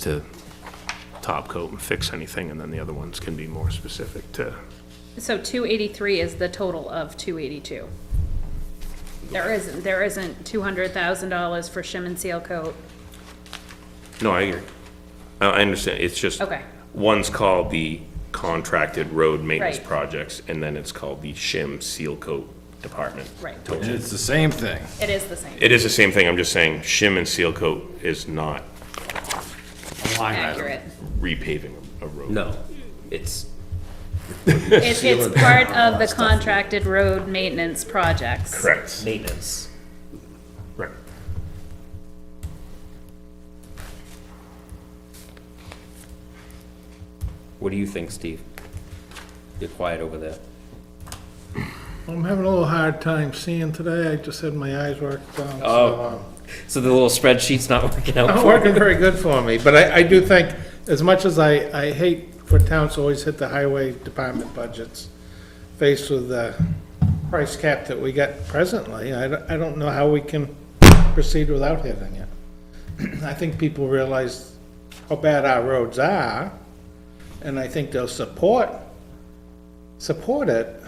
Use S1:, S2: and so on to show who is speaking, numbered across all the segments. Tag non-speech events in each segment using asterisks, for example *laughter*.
S1: to top coat and fix anything, and then the other ones can be more specific to,
S2: So two eighty-three is the total of two eighty-two. There isn't, there isn't two hundred thousand dollars for shim and seal coat.
S3: No, I agree. I, I understand, it's just.
S2: Okay.
S3: One's called the contracted road maintenance
S2: Right.
S3: projects, and then it's called the shim seal coat department.
S2: Right.
S3: Total.
S4: And it's the same thing.
S2: It is the same.
S3: It is the same thing, I'm just saying, shim and seal coat is not
S1: *laughs*
S2: Accurate.
S3: repaving a road.
S5: No, it's,
S2: It's, it's
S1: *laughs*
S2: part of the contracted road maintenance projects.
S3: Correct.
S5: maintenance.
S3: Right.
S5: What do you think, Steve? You're quiet over there.
S6: I'm having a little hard time seeing today. I just had my eyes worked down. Oh.
S5: So the little spreadsheet's not working out
S6: Not
S5: for you?
S6: working very good for me, but I, I do think, as much as I, I hate for towns to always hit the highway department budgets, faced with the price cap that we got presently, I, don't- I don't know how we can proceed without hitting it. *clears throat* I think people realize how bad our roads are, and I think they'll support, support it.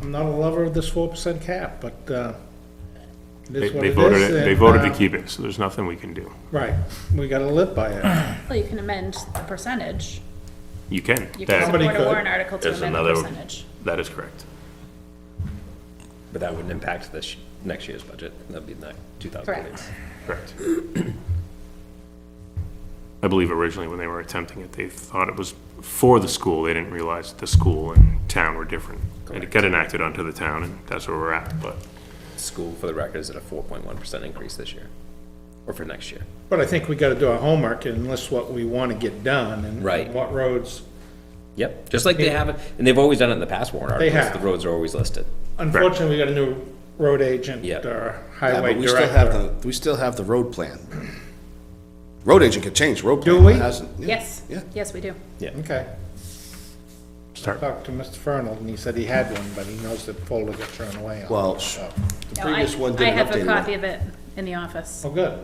S6: I'm not a lover of this four percent cap, but, uh, it
S1: they
S6: is what
S1: they
S6: it is.
S1: voted, it- they
S6: and,
S1: voted to
S6: uh,
S1: keep it, so there's nothing we can do.
S6: Right, we gotta live by it.
S2: Well, you can amend the percentage.
S1: You can,
S2: You can
S1: that,
S6: Somebody
S2: support a
S6: could.
S2: warrant article to
S1: There's
S2: amend the
S1: another-
S2: percentage.
S1: that is correct.
S5: But that wouldn't impact this, next year's budget. That'd be like two thousand eight.
S2: Correct.
S1: Correct. I believe originally when they were attempting it, they thought it was for the school. They didn't realize the school and town were different. And it got enacted onto the town, and that's where we're at, but
S5: School, for the record, is at a four point one percent increase this year, or for next year.
S6: But I think we gotta do our homework and list what we wanna get done and
S5: Right.
S6: what roads.
S5: Yep, just like they have, it, and they've always done it in the past warrant
S6: They
S5: articles. The
S6: have.
S5: roads are always listed.
S6: Unfortunately, we got a new road agent
S5: Yeah.
S6: or
S7: Yeah,
S6: highway
S7: but we still have
S6: director.
S7: the, we still have the road plan. Road agent could change road plan.
S6: Do we?
S7: It hasn't- yeah,
S2: Yes,
S7: Yeah.
S2: yes, we do.
S6: Okay,
S1: start.
S6: talked to Mr. Fernald and he said he had one, but he knows that folder got thrown away. on
S7: Well,
S6: it,
S7: sh-
S6: so-
S7: The
S2: No, I-
S7: previous one
S2: I
S7: didn't
S2: have a
S7: update
S2: copy
S7: one.
S2: of it in the office.
S6: Oh, good.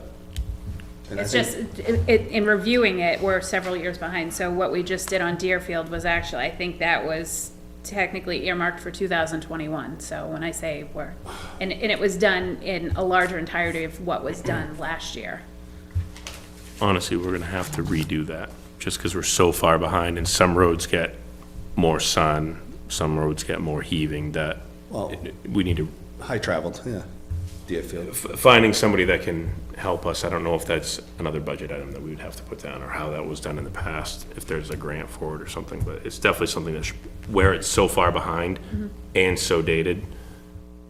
S7: And I
S2: It's
S7: think-
S2: just, it, it- in reviewing it, we're several years behind, so what we just did on Deerfield was actually, I think that was technically earmarked for two thousand twenty-one, so when I say we're, and, and it was done in a larger entirety of what was done last year.
S1: Honestly, we're gonna have to redo that, just because we're so far behind, and some roads get more sun, some roads get more heaving, that
S7: Well-
S1: it- we need to,
S7: High traveled, yeah. Deerfield.
S1: f- finding somebody that can help us, I don't know if that's another budget item that we would have to put down, or how that was done in the past, if there's a grant for it or something, but it's definitely something that's, where it's so far behind and so dated,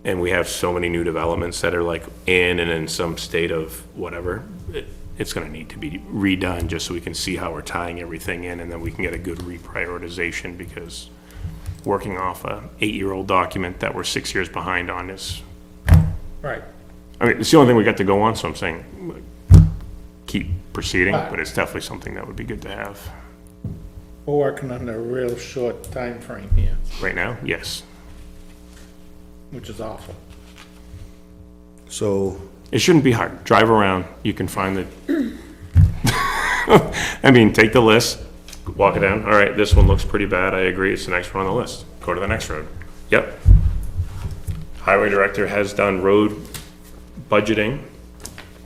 S1: and we have so many new developments that are like in and in some state of whatever, it, it's gonna need to be redone just so we can see how we're tying everything in and then we can get a good reprioritization because working off a eight-year-old document that we're six years behind on is,
S6: Right.
S1: I mean, it's the only thing we got to go on, so I'm saying like, keep proceeding, but it's definitely something that would be good to have.
S6: We're working on a real short time frame here,
S1: Right now, yes.
S6: which is awful.
S7: So,
S1: It shouldn't be hard. Drive around, you can find the, *laughs* I mean, take the list, walk it down. All right, this one looks pretty bad. I agree. It's the next one on the list. Go to the next road. Yep. Highway director has done road budgeting,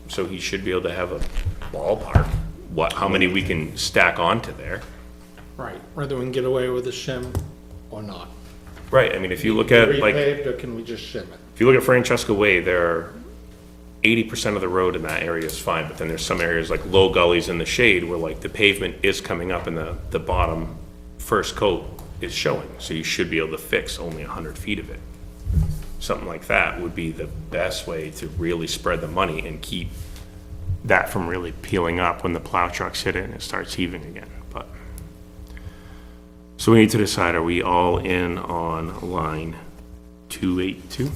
S1: so he should be able to have a ballpark, what, how many we can stack onto there.
S6: Right, whether we can get away with a shim or not.
S1: Right, I mean, if you look at like.
S6: Repaved or can we just shim it?
S1: if you look at Francesca Way, there are eighty percent of the road in that area is fine, but then there's some areas like low gullies in the shade where like the pavement is coming up and the, the bottom first coat is showing, so you should be able to fix only hundred feet of it. Something like that would be the best way to really spread the money and keep that from really peeling up when the plow trucks hit it and it starts heaving again, but. So we need to decide, are we all in on line two eight two?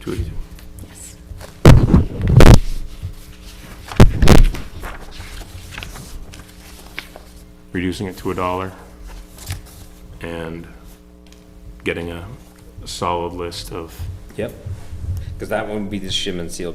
S1: Two eighty-two. Reducing it to a dollar and getting a solid list of
S5: Yep. Because that one would be the shim and seal coat